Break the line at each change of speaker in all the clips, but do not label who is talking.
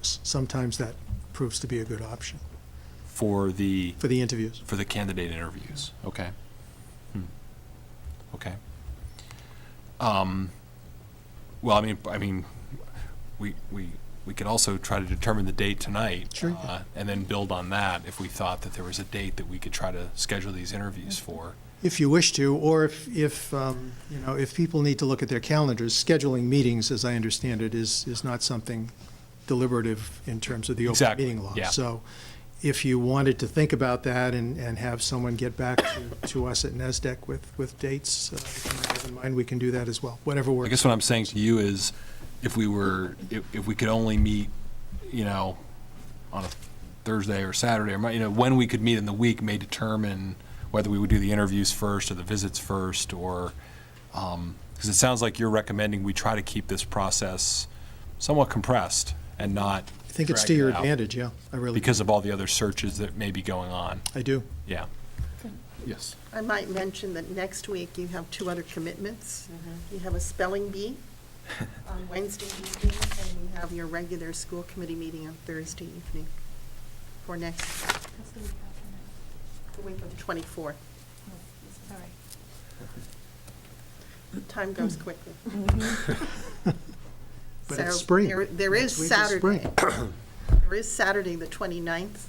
s- sometimes that proves to be a good option
for the,
for the interviews.
for the candidate interviews, okay? Hmm. Okay. Um, Well, I mean, I mean, we, we, we could also try to determine the date tonight.
Sure.
uh, And then build on that if we thought that there was a date that we could try to schedule these interviews for.
If you wish to, or if, if, um, you know, if people need to look at their calendars, scheduling meetings, as I understand it, is, is not something deliberative in terms of the open
Exactly,
meeting law.
yeah.
So if you wanted to think about that and, and have someone get back to, to us at NASDAQ with, with dates, uh, that you might have in mind, we can do that as well, whatever
I
works.
guess what I'm saying to you is, if we were, if, if we could only meet, you know, on a Thursday or Saturday, or, Mon- you know, when we could meet in the week may determine whether we would do the interviews first or the visits first, or, um 'cause because it sounds like you're recommending we try to keep this process somewhat compressed and not
I think it's to
drag it
your
out
advantage, yeah, I really,
because of all the other searches that may be going on,
I do.
yeah. Yes.
I might mention that next week you have two other commitments. You have a spelling bee on Wednesday evening, and you have your regular school committee meeting on Thursday evening for next,
That's the week after
the week of the 24th.
next. Sorry.
Time goes quickly.
But it's
So
spring.
there- There is
Next week is spring.
Saturday. There is Saturday, the 29th.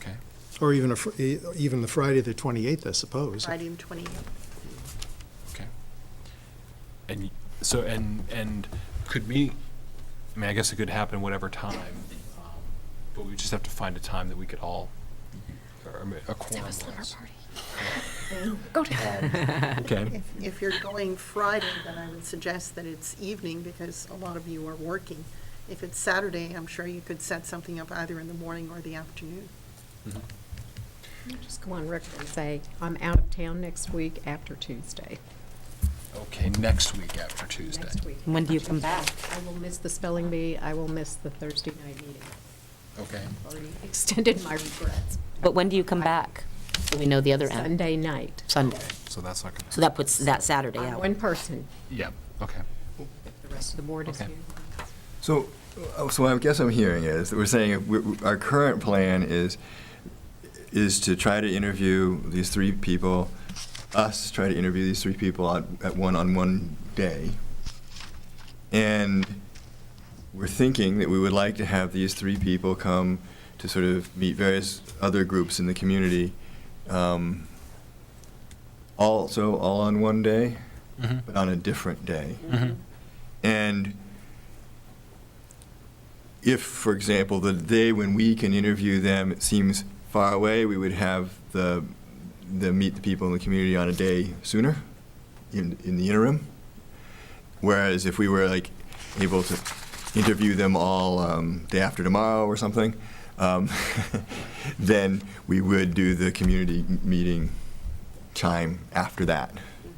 Okay.
Or even a, fr- e- even the Friday, the 28th, I suppose.
Friday and 28th.
Okay. And y- so, and, and could we, I mean, I guess it could happen whatever time, um, but we just have to find a time that we could all, or um, a quorum was.
Go to
Okay,
If, if you're going Friday, then I would suggest that it's evening because a lot of you are working. If it's Saturday, I'm sure you could set something up either in the morning or the afternoon.
Just go on record and say, I'm out of town next week after Tuesday.
okay, next week after Tuesday.
Next week.
When do you come back?
I will miss the spelling bee, I will miss the Thursday night meeting.
Okay,
Already extended my regrets.
But when do you come back? So we know the other end.
Sunday night,
Sunday.
so that's not gonna,
So that puts that Saturday
I'm
out.
one person,
yeah, okay.
the rest of the board is
Okay.
here.
So, uh, so I guess I'm hearing is, that we're saying we- we- our current plan is, is to try to interview these three people, us try to interview these three people at, at one, on one day. And we're thinking that we would like to have these three people come to sort of meet various other groups in the community, um, also all on one day,
Mhm.
but on a different day.
Mhm.
And if, for example, the day when we can interview them seems far away, we would have the, the meet the people in the community on a day sooner, in, in the interim. Whereas if we were like able to interview them all um, day after tomorrow or something, um, then we would do the community m- meeting time after that.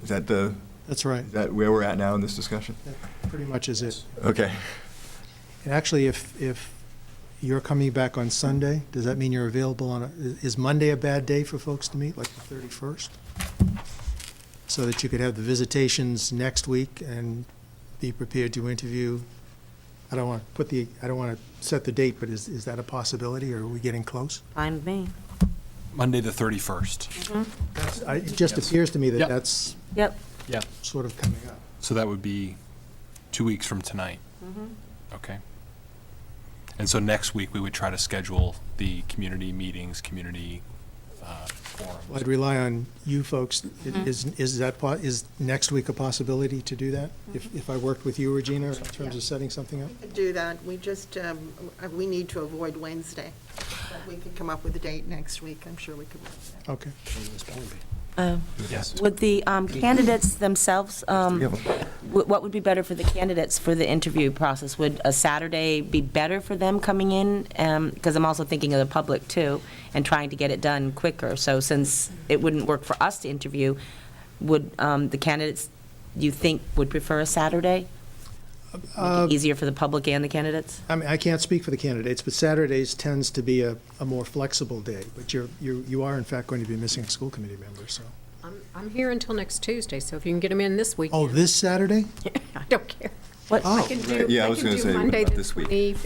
Is that the,
That's right.
is that where we're at now in this discussion?
That pretty much is it.
Okay.
And actually, if, if you're coming back on Sunday, does that mean you're available on, a- is Monday a bad day for folks to meet, like the 31st? So that you could have the visitations next week and be prepared to interview? I don't want to put the, I don't want to set the date, but is, is that a possibility, or are we getting close?
Fine with me.
Monday, the thirty-first.
I- It just
Yes.
appears to me that
Yep.
that's
Yep.
Yeah.
sort of coming up.
So that would be two weeks from tonight. Okay. And so next week, we would try to schedule the community meetings, community uh,
Well, I'd
forums.
rely on you folks. I- Is,
Mm-hmm.
is that, po- is next week a possibility to do that?
Mm-hmm.
If, if I worked with you, Regina, in terms of setting something up?
We could do that. We just, um, uh, we need to avoid Wednesday. But we could come up with a date next week. I'm sure we could. work that.
Okay.
Yes.
Um, Would the um, candidates themselves, um,
Yeah, well-
wh- what would be better for the candidates for the interview process? Would a Saturday be better for them coming in? Because I'm also thinking of the public, too, and trying to get it done quicker. So since it wouldn't work for us to interview, would um, the candidates, you think, would prefer a Saturday?
Uh,
Make it easier for the public and the candidates?
I mean, I can't speak for the candidates, but Saturdays tends to be a, a more flexible day. But you're, you, you are in fact going to be missing a school committee member, so.
I'm, I'm here until next Tuesday, so if you can get them in this week.
Oh, this Oh, Saturday?
I don't care.
What?
Oh.
I can do,
Yeah, I
I
was
can
gonna
do
say
Monday
about
the
this week.
20